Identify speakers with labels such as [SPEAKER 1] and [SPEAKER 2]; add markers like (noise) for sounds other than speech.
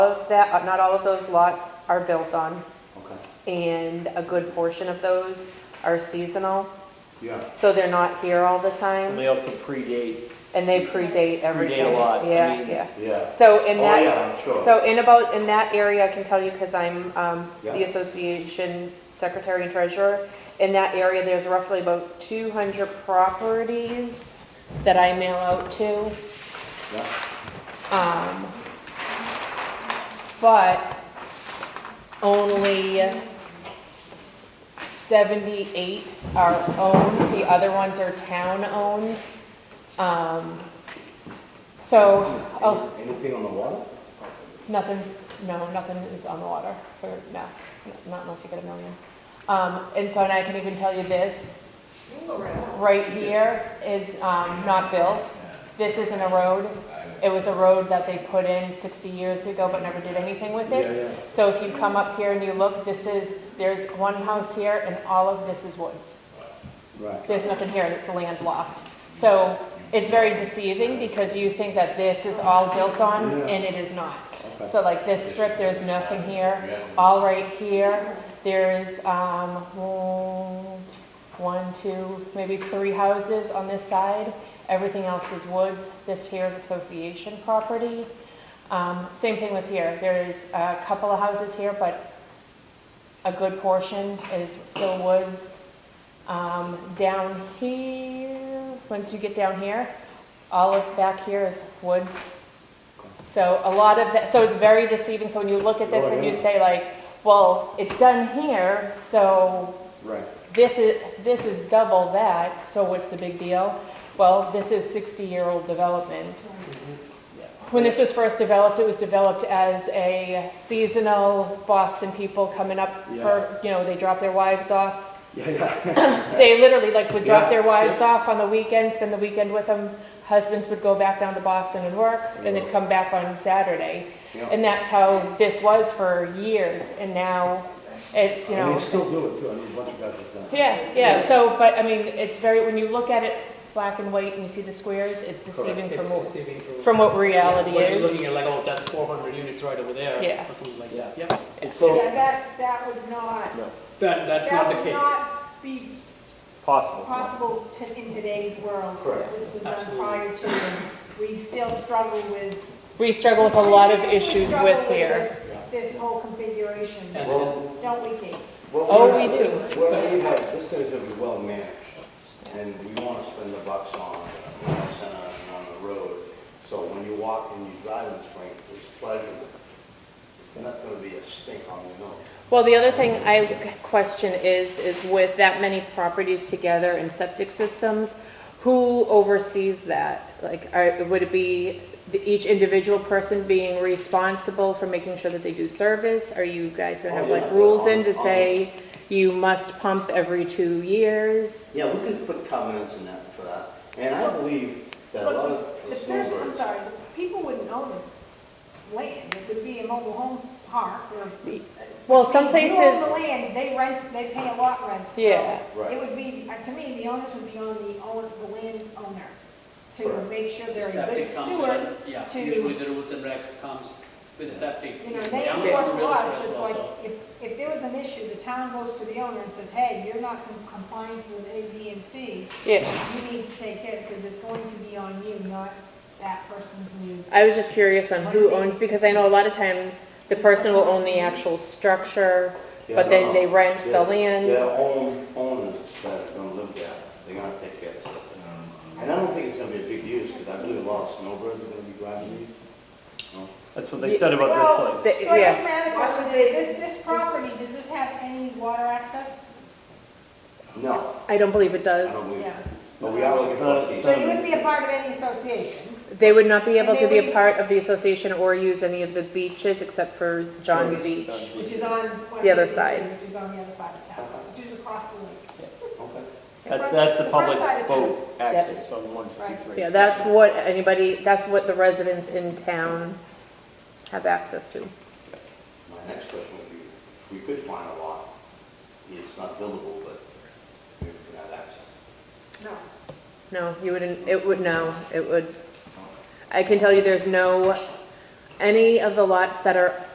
[SPEAKER 1] of that, uh, not all of those lots are built on,
[SPEAKER 2] Okay,
[SPEAKER 1] and a good portion of those are seasonal,
[SPEAKER 2] yeah.
[SPEAKER 1] so they're not here all the time,
[SPEAKER 3] They also predate,
[SPEAKER 1] and they predate everything.
[SPEAKER 3] Predate a lot, I
[SPEAKER 1] Yeah,
[SPEAKER 3] mean-
[SPEAKER 1] yeah.
[SPEAKER 2] Yeah.
[SPEAKER 1] So in
[SPEAKER 2] Oh,
[SPEAKER 1] that,
[SPEAKER 2] yeah, I'm sure.
[SPEAKER 1] so in about, in that area, I can tell you, because I'm um, the
[SPEAKER 2] Yeah.
[SPEAKER 1] association secretary and treasurer, in that area, there's roughly about 200 properties that I mail out to.
[SPEAKER 2] Yeah.
[SPEAKER 1] Um, But only 78 are owned, the other ones are town-owned. Um, So, oh,
[SPEAKER 2] Any- Anything on the water?
[SPEAKER 1] nothing's, no, nothing is on the water for, no, not unless you get a million. Um, And so, and I can even tell you this, right here is um, not built. This isn't a road. It was a road that they put in 60 years ago but never did anything with it.
[SPEAKER 2] Yeah, yeah.
[SPEAKER 1] So if you come up here and you look, this is, there's one house here and all of this is woods.
[SPEAKER 2] Right.
[SPEAKER 1] There's nothing here and it's landlocked. So it's very deceiving because you think that this is all built on
[SPEAKER 2] Yeah.
[SPEAKER 1] and it is not.
[SPEAKER 2] Okay.
[SPEAKER 1] So like this strip, there's nothing here. All right here, there's, um, mm, one, two, maybe three houses on this side. Everything else is woods. This here is association property. Um, same thing with here. There is a couple of houses here, but a good portion is still woods. Um, down here, once you get down here, all of back here is woods. So a lot of that, so it's very deceiving. So when you look at this
[SPEAKER 2] Oh,
[SPEAKER 1] and you
[SPEAKER 2] yeah.
[SPEAKER 1] say like, well, it's done here, so
[SPEAKER 2] Right.
[SPEAKER 1] this is, this is double that, so what's the big deal? Well, this is sixty-year-old development. When this was first developed, it was developed as a seasonal Boston people coming up for, you know, they drop their wives off.
[SPEAKER 2] Yeah, yeah.
[SPEAKER 1] They literally like would drop their
[SPEAKER 2] Yeah,
[SPEAKER 1] wives off on the weekend, spend the weekend with them. Husbands would go back down to Boston and work, and they'd come back on Saturday.
[SPEAKER 2] Yeah.
[SPEAKER 1] And that's how this was for years, and now it's, (laughs) you know.
[SPEAKER 2] And they still do it too, I mean, a bunch of guys have done it.
[SPEAKER 1] Yeah, yeah, so, but I mean, it's very, when you look at it black and white and you see the squares, it's deceiving
[SPEAKER 4] It's
[SPEAKER 1] from what,
[SPEAKER 4] deceiving from.
[SPEAKER 1] from what
[SPEAKER 4] Yeah,
[SPEAKER 1] reality
[SPEAKER 4] What you're
[SPEAKER 1] is.
[SPEAKER 4] looking at, like, oh, that's four hundred units right over there.
[SPEAKER 1] Yeah.
[SPEAKER 4] Or something like
[SPEAKER 3] Yeah.
[SPEAKER 4] that, yeah.
[SPEAKER 3] it's
[SPEAKER 5] Yeah,
[SPEAKER 3] so
[SPEAKER 5] that, that would not,
[SPEAKER 4] That, that's not
[SPEAKER 5] that
[SPEAKER 4] the
[SPEAKER 5] would
[SPEAKER 4] case.
[SPEAKER 5] not be
[SPEAKER 3] possible.
[SPEAKER 5] possible to, in today's world.
[SPEAKER 2] Correct.
[SPEAKER 5] This was done
[SPEAKER 4] Absolutely.
[SPEAKER 5] prior to, and we still struggle with.
[SPEAKER 1] We struggle with a lot of
[SPEAKER 5] we
[SPEAKER 1] issues
[SPEAKER 5] struggle
[SPEAKER 1] with here.
[SPEAKER 5] this- This whole configuration,
[SPEAKER 4] And-
[SPEAKER 2] Well,
[SPEAKER 5] don't we, Kate?
[SPEAKER 2] what
[SPEAKER 1] Oh, we
[SPEAKER 2] have- What we have, this thing's gonna be well managed, and we wanna spend the bucks on, you know, center and on the road. So when you walk and you drive in spring, it's pleasurable. It's not gonna be a stink on your nose.
[SPEAKER 1] Well, the other thing I question is, is with that many properties together and septic systems, who oversees that? Like, are, would it be the- each individual person being responsible for making sure that they do service? Are you guys gonna
[SPEAKER 2] Oh,
[SPEAKER 1] have
[SPEAKER 2] yeah,
[SPEAKER 1] like rules in
[SPEAKER 2] on-
[SPEAKER 1] to
[SPEAKER 2] on-
[SPEAKER 1] say you must pump every two years?
[SPEAKER 2] Yeah, we could put covenants in that for that, and I believe that a lot
[SPEAKER 5] Look,
[SPEAKER 2] of
[SPEAKER 5] the
[SPEAKER 2] the
[SPEAKER 5] person, I'm
[SPEAKER 2] snowbirds.
[SPEAKER 5] sorry, people wouldn't own the land, it would be a mobile home park or.
[SPEAKER 1] Well, some
[SPEAKER 5] If you own the
[SPEAKER 1] places-
[SPEAKER 5] land, they rent, they pay a lot rent, so.
[SPEAKER 1] Yeah.
[SPEAKER 2] Right.
[SPEAKER 5] It would be, uh, to me, the owners would be on the own, the landowner to
[SPEAKER 2] Correct.
[SPEAKER 5] make sure
[SPEAKER 6] The
[SPEAKER 5] they're a good
[SPEAKER 6] septic comes
[SPEAKER 5] steward.
[SPEAKER 6] in, yeah,
[SPEAKER 5] to-
[SPEAKER 6] usually the rules and regs comes with septic.
[SPEAKER 5] You know, they
[SPEAKER 6] Yeah,
[SPEAKER 5] enforce
[SPEAKER 6] realtor
[SPEAKER 5] laws, but
[SPEAKER 6] as
[SPEAKER 5] it's
[SPEAKER 6] well,
[SPEAKER 5] like,
[SPEAKER 6] so.
[SPEAKER 5] if, if there was an issue, the town goes to the owner and says, hey, you're not com- complying with A, B, and C.
[SPEAKER 1] Yeah.
[SPEAKER 5] You need to take care, because it's going to be on you, not that person who is.
[SPEAKER 1] I was just curious on who owns, because I know a lot of times the person will own the actual structure, but
[SPEAKER 2] uh-huh.
[SPEAKER 1] then they rent the
[SPEAKER 2] Their
[SPEAKER 1] land.
[SPEAKER 2] own owners that are gonna live there, they're gonna take care of stuff. And I don't think it's gonna be a big use, because I believe a lot of snowbirds are gonna be grabbing these. No?
[SPEAKER 3] That's what they said about
[SPEAKER 5] Well,
[SPEAKER 3] this place.
[SPEAKER 1] place.
[SPEAKER 5] So I
[SPEAKER 1] Yeah.
[SPEAKER 5] guess my other question is, this, this property, does this have any water access?
[SPEAKER 2] No,
[SPEAKER 1] I don't believe it
[SPEAKER 2] I don't
[SPEAKER 1] does.
[SPEAKER 2] believe
[SPEAKER 5] Yeah.
[SPEAKER 2] it. But we are looking for these.
[SPEAKER 5] So you wouldn't be a part of any association?
[SPEAKER 1] They would not be able
[SPEAKER 5] And
[SPEAKER 1] to
[SPEAKER 5] they
[SPEAKER 1] be a
[SPEAKER 5] wouldn't-
[SPEAKER 1] part of the association or use any of the beaches except for John's Beach.
[SPEAKER 5] Which is on.
[SPEAKER 1] The other side.
[SPEAKER 5] Which is on the other side of town, which is across the lake.
[SPEAKER 2] Okay.
[SPEAKER 3] That's, that's the
[SPEAKER 5] front
[SPEAKER 3] public
[SPEAKER 5] side of town.
[SPEAKER 3] boat access on one fifty-three.
[SPEAKER 1] Yeah, that's what anybody, that's what the residents in town have access to.
[SPEAKER 2] My next question would be, if we could find a lot, it's not buildable, but we can have access.
[SPEAKER 5] No.
[SPEAKER 1] No, you wouldn't, it would, no, it would, I can tell you there's no any of the lots that are